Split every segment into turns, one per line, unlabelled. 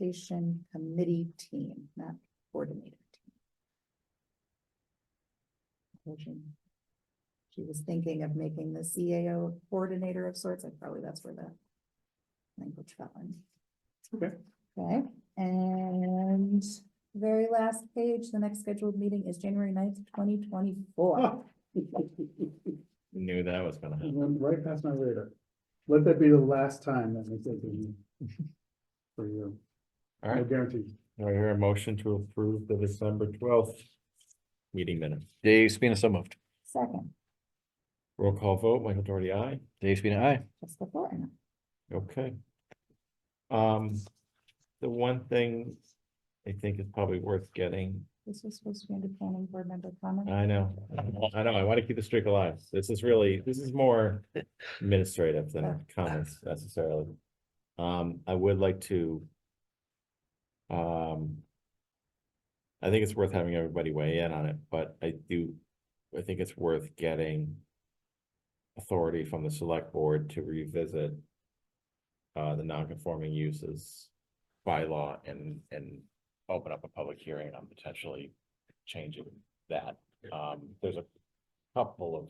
implementation committee team, not coordinator team. Motion. She was thinking of making the CAO coordinator of sorts, and probably that's where the language fell in.
Okay.
Okay, and very last page, the next scheduled meeting is January 9th, twenty twenty-four.
Ah. It
Knew that was gonna happen.
Went right past my radar. Let that be the last time that makes it for you.
All
No
right,
guarantees.
do I hear a motion to approve the December twelfth meeting minutes?
Dave Spina, so moved.
Second,
Roll call vote, Michael Doherty, aye.
Dave Spina, aye.
Jessica Thornton.
Okay. Um, the one thing I think is probably worth getting,
This was supposed to be under planning board member comment.
I know, I know, I want to keep the streak alive. This is really, this is more administrative than comments necessarily. Um, I would like to um, I think it's worth having everybody weigh in on it, but I do, I think it's worth getting authority from the select board to revisit uh, the non-conforming uses bylaw and, and open up a public hearing on potentially changing that. Um, there's a couple of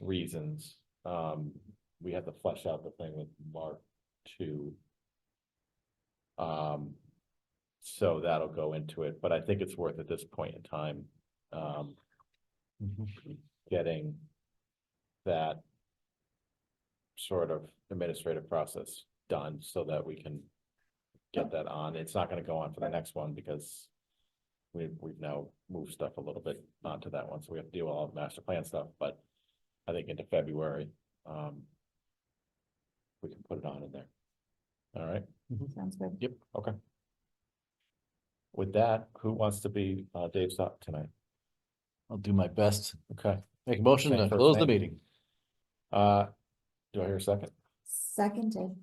reasons. Um, we have to flesh out the thing with Mark two. Um, so that'll go into it, but I think it's worth at this point in time, um, getting that sort of administrative process done so that we can get that on. It's not gonna go on for the next one because we've, we've now moved stuff a little bit onto that one, so we have to deal with all the master plan stuff, but I think into February, um, we can put it on in there. All right?
Sounds good.
Yep, okay. With that, who wants to be uh Dave's up tonight?
I'll do my best.
Okay,
Make a motion to
Thanks for
close the
saying.
meeting.
uh, do I hear a second?
Seconded.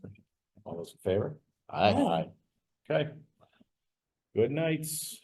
All those in favor?
Aye.
Okay. Good nights.